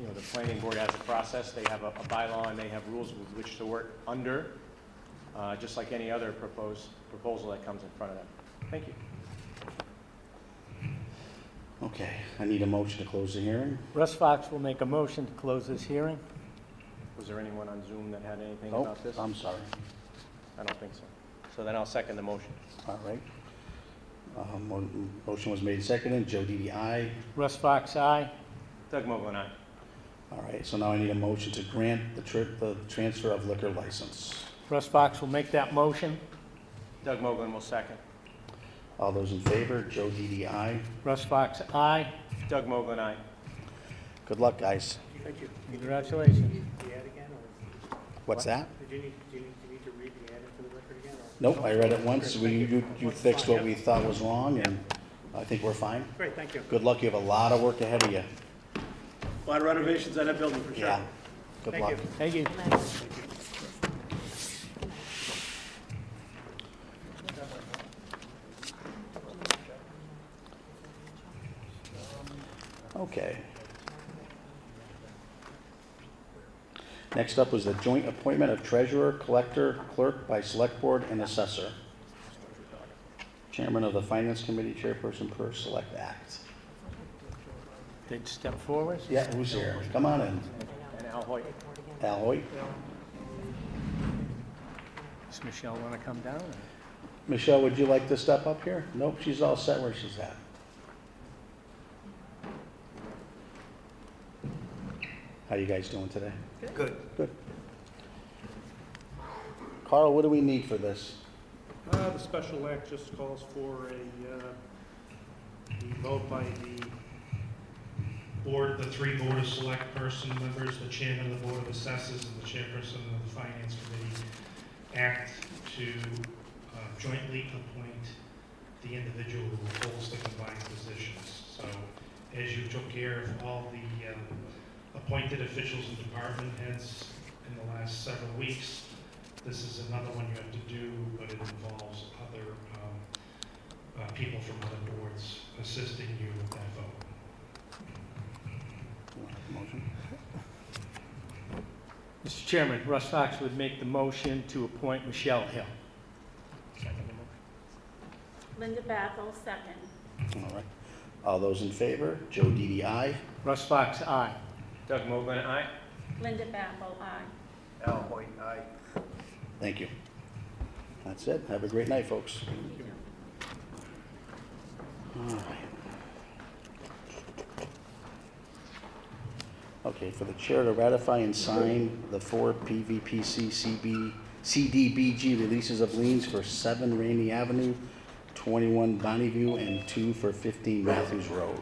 you know, the planning board has a process, they have a a bylaw, and they have rules with which to work under, uh, just like any other proposed, proposal that comes in front of them. Thank you. Okay, I need a motion to close the hearing. Russ Fox will make a motion to close this hearing. Was there anyone on Zoom that had anything Oh, about this? I'm sorry. I don't think so. So then I'll second the motion. All right. Uh, mo- Motion was made and seconded. Joe Didi, aye. Russ Fox, aye. Doug Mogul and I. All right, so now I need a motion to grant the trip, the transfer of liquor license. Russ Fox will make that motion. Doug Mogul will second. All those in favor, Joe Didi, aye. Russ Fox, aye. Doug Mogul and I. Good luck, guys. Thank you. Congratulations. The ad again, or What's that? did you need, do you need, do you need to read the ad into the record again? or- Nope, I read it once. We, you you fixed what we thought was wrong, and I think we're fine. Great, thank you. Good luck, you have a lot of work ahead of you. A lot of renovations on that building, for sure. Yeah, good Thank luck. you. Thank you. Okay. Next up was the joint appointment of treasurer, collector, clerk by select board and assessor. Chairman of the finance committee, chairperson per select act. Did step forward. Yeah, who's here? Come on in. And Al Hoyt. Al Hoyt. Does Michelle want to come down? Michelle, would you like to step up here? Nope, she's all set where she's at. How you guys doing today? Good. Good. Carl, what do we need for this? Uh, The special act just calls for a, uh, the vote by the board, the three board of select person members, the chairman of the board of assessors, and the chairperson of the finance committee, act to uh, jointly appoint the individual who holds the combined positions. So as you took care of all the um, appointed officials and department heads in the last several weeks, this is another one you have to do, but it involves other um, uh, people from other boards assisting you with that vote. Motion? Mr. Chairman, Russ Fox would make the motion to appoint Michelle Hill. Linda Backel, second. All right. All those in favor? Joe DDI. Russ Fox, aye. Doug Mogul and I. Linda Backel, aye. Al Hoyt, aye. Thank you. That's it. Have a great night, folks. All right. Okay, for the chair to ratify and sign the four PVPC CB, CDBG releases of liens for seven Rainy Avenue, twenty-one Bonneview, and two for fifteen Matthews Road.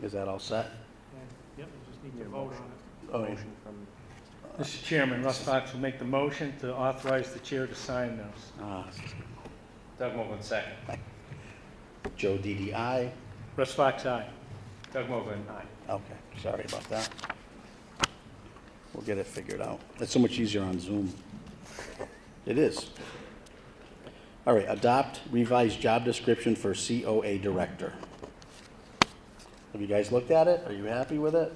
Is that all set? And, Yep, you just need to vote on Oh, it. Motion from Mr. Chairman, Russ Fox will make the motion to authorize the chair to sign those. uh, Doug Mogul, second. Joe DDI. Russ Fox, aye. Doug Mogul and I. Okay, sorry about that. We'll get it figured out. It's so much easier on Zoom. It is. All right, adopt revised job description for COA director. Have you guys looked at it? Are you happy with it?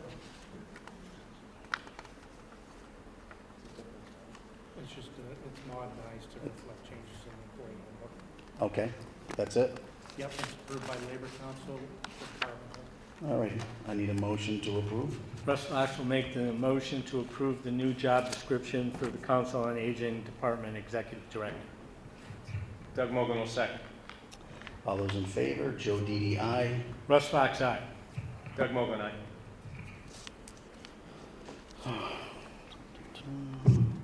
It's just, uh, it's modernized to reflect changes in the employee handbook. Okay, that's it? Yep, it's approved by Labor Council, Department of All right, I need a motion to approve. Russ Fox will make the motion to approve the new job description for the Council on Aging Department Executive Director. Doug Mogul will second. All those in favor, Joe DDI. Russ Fox, aye. Doug Mogul and I.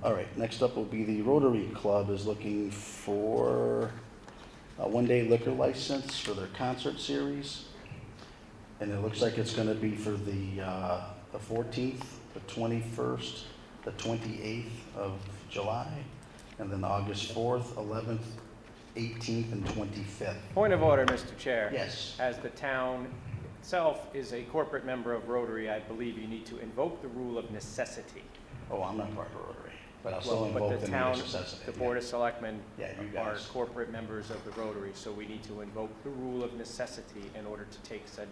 All right, next up will be the Rotary Club is looking for a one-day liquor license for their concert series. And it looks like it's gonna be for the, uh, the fourteenth, the twenty-first, the twenty-eighth of July, and then August fourth, eleventh, eighteenth, and twenty-fifth. Point of order, Mr. Chair. Yes, As the town itself is a corporate member of Rotary, I believe you need to invoke the rule of necessity. oh, I'm not part of Rotary, but I'll Well, still invoke But the the town, necessity. the Board of Selectmen Yeah, you are guys. corporate members of the Rotary, so we need to invoke the rule of necessity in order to take said